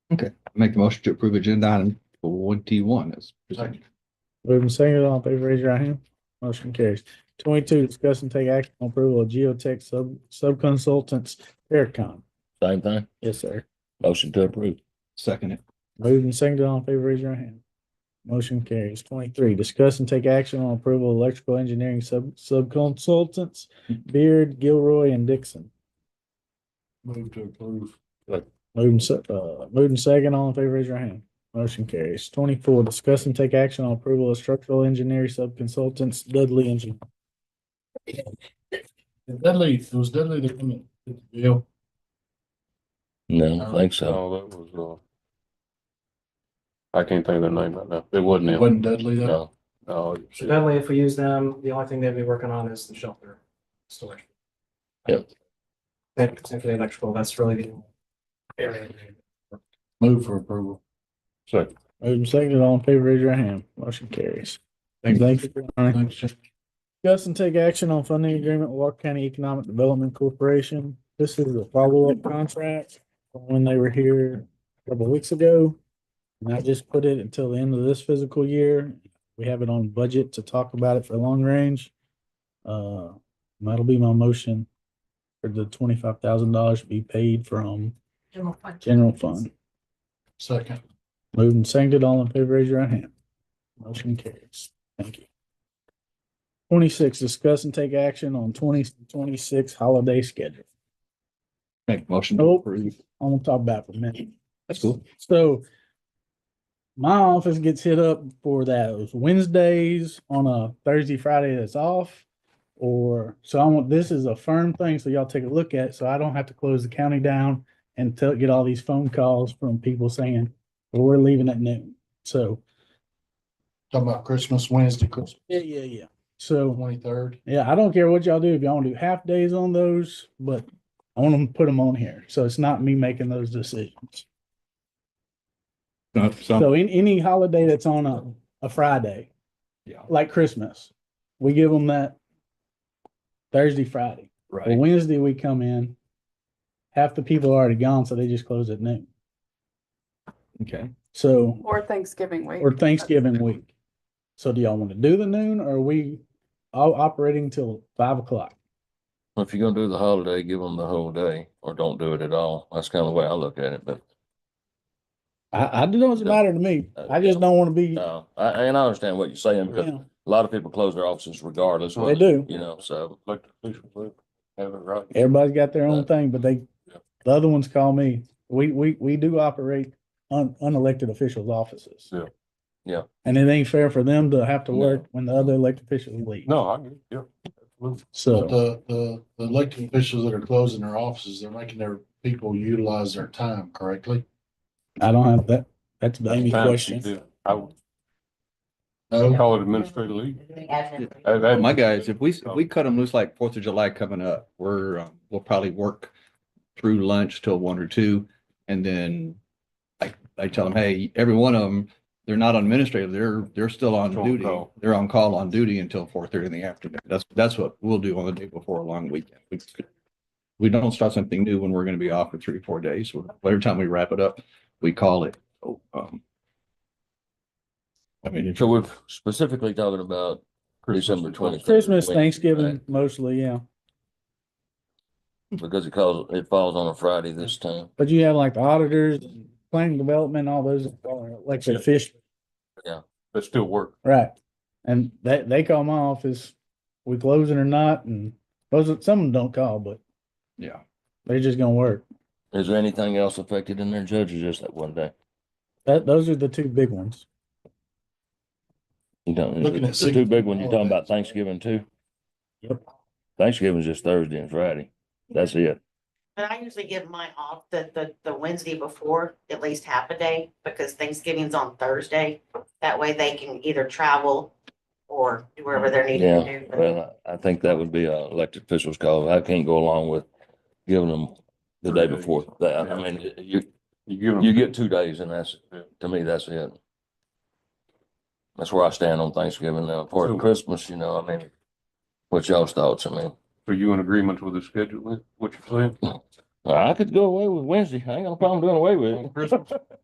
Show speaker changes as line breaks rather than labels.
Make the motion to approve agenda item twenty-one as presented.
Moving second, all in favor, raise your right hand. Motion carries. Twenty-two, discuss and take action on approval of Geotech sub, subconsultants, Aircon.
Same thing.
Yes, sir.
Motion to approve.
Second it.
Moving second, all in favor, raise your right hand. Motion carries. Twenty-three, discuss and take action on approval of electrical engineering sub, subconsultants, Beard, Gilroy, and Dixon.
Move to approve.
Moving, se- uh, moving second, all in favor, raise your hand. Motion carries. Twenty-four, discuss and take action on approval of structural engineering subconsultants, Dudley Engineering.
Dudley, it was Dudley that come in. did the Deal.
No, I don't think so.
No, that was, uh, I can't think of their name right now. It Oh, wasn't
It
him.
wasn't Dudley though.
No, no.
So definitely if we use them, the only thing they'd be working on is the shelter storage.
Yep.
That, except for the electrical, that's really the area.
Move for approval.
Second.
Moving second, all in favor, raise your hand. Motion carries.
Thank you.
Thank you. Connie.
Thanks, Jeff.
Discuss and take action on funding agreement with Walker County Economic Development Corporation. This is a follow-up contract from when they were here a couple of weeks ago. And I just put it until the end of this physical year. We have it on budget to talk about it for long range. Uh, that'll be my motion for the twenty-five thousand dollars to be paid from
General fund.
general fund.
Second.
Moved and seconded, all in favor, raise your right hand. Motion carries. Thank you. Twenty-six, discuss and take action on twenty twenty-six holiday schedule.
Make the motion to
Nope.
approve.
I'm gonna talk about it for a minute.
That's cool.
So my office gets hit up for those Wednesdays on a Thursday, Friday that's off. Or so I want, this is a firm thing, so y'all take a look at, it, so I don't have to close the county down and tell, get all these phone calls from people saying, well, we're leaving at noon. So
Talking about Christmas, Wednesday, Christmas
Yeah, yeah, yeah. So,
twenty-third.
yeah, I don't care what y'all do. If y'all want to do half days on those, but I want them to put them on here. So it's not me making those decisions.
Uh, So,
So in any holiday that's on a, a Friday,
yeah,
like Christmas, we give them that Thursday, Friday. Well,
right.
Wednesday we come in. Half the people are already gone, so they just close at noon.
Okay.
So,
Or Thanksgiving week.
or Thanksgiving week. So do y'all want to do the noon or are we all operating till five o'clock?
If you're gonna do the holiday, give them the whole day or don't do it at all. That's kind of the way I look at it, but
I, I don't know, Uh, it's a matter to me. I just don't want to be,
no, uh, I, and I understand what you're saying because
Yeah.
a lot of people close their offices regardless.
They
whether-
do.
You know, so.
Like the official, but have it right.
Everybody's got their own
Right.
thing, but they,
Yeah.
the other ones call me. We, we, we do operate un, unelected officials' offices.
Yeah.
Yeah.
And it ain't fair for them to have to
No.
work when the other elected officials leave.
No, I get it. Yeah. absolutely.
But
So,
the, the, the elected officials that are closing their offices, they're making their people utilize their time correctly.
I don't have that, that's the only
Times you
question.
do. I would
No,
call it administrative leave. I've
Well,
had-
Oh, My guys, if we, if we cut them loose like Fourth of July coming up, we're, um, we'll probably work through lunch till one or two. And then I, I tell them, hey, every one of them, they're not on administrative. They're, they're still on
On
duty.
call.
They're on call on duty until four thirty in the afternoon. That's, that's what we'll do on the day before a long weekend. We- We don't start something new when we're going to be off for three, four days. Every time we wrap it up, we call it. So, um, I mean, if
So we're specifically talking about December twenty.
Christmas, Thanksgiving mostly, yeah.
Because it calls, it falls on a Friday this time.
But you have like the auditors, planning development, all those are elected officials.
But still work.
Right. And they, they call my office, we closing or not, and those, are- some of them don't call, but
yeah.
they're just gonna work.
Is there anything else affected in there, Judge, or just that one day?
That, those are the two big ones.
You don't,
Looking at
the two big ones,
six-
you're talking about Thanksgiving too?
Yep.
Thanksgiving's just Thursday and Friday. That's it.
But I usually give mine off the, the, the Wednesday before, at least half a day, because Thanksgiving's on Thursday. That way they can either travel or do wherever they're needed to do. but-
Well, I I think that would be a elected official's call. I can't go along with giving them the day
Three days.
before. That, I
Yeah.
mean, you,
You give them.
you get two days and that's,
Yeah.
to me, that's it. That's where I stand on Thanksgiving now. For
So-
Christmas, you know, I mean, what's y'all's thoughts? I mean,
Are you in agreement with the schedule, then? what you're saying?
I could go away with Wednesday. I ain't got no problem doing away with it.
Christmas?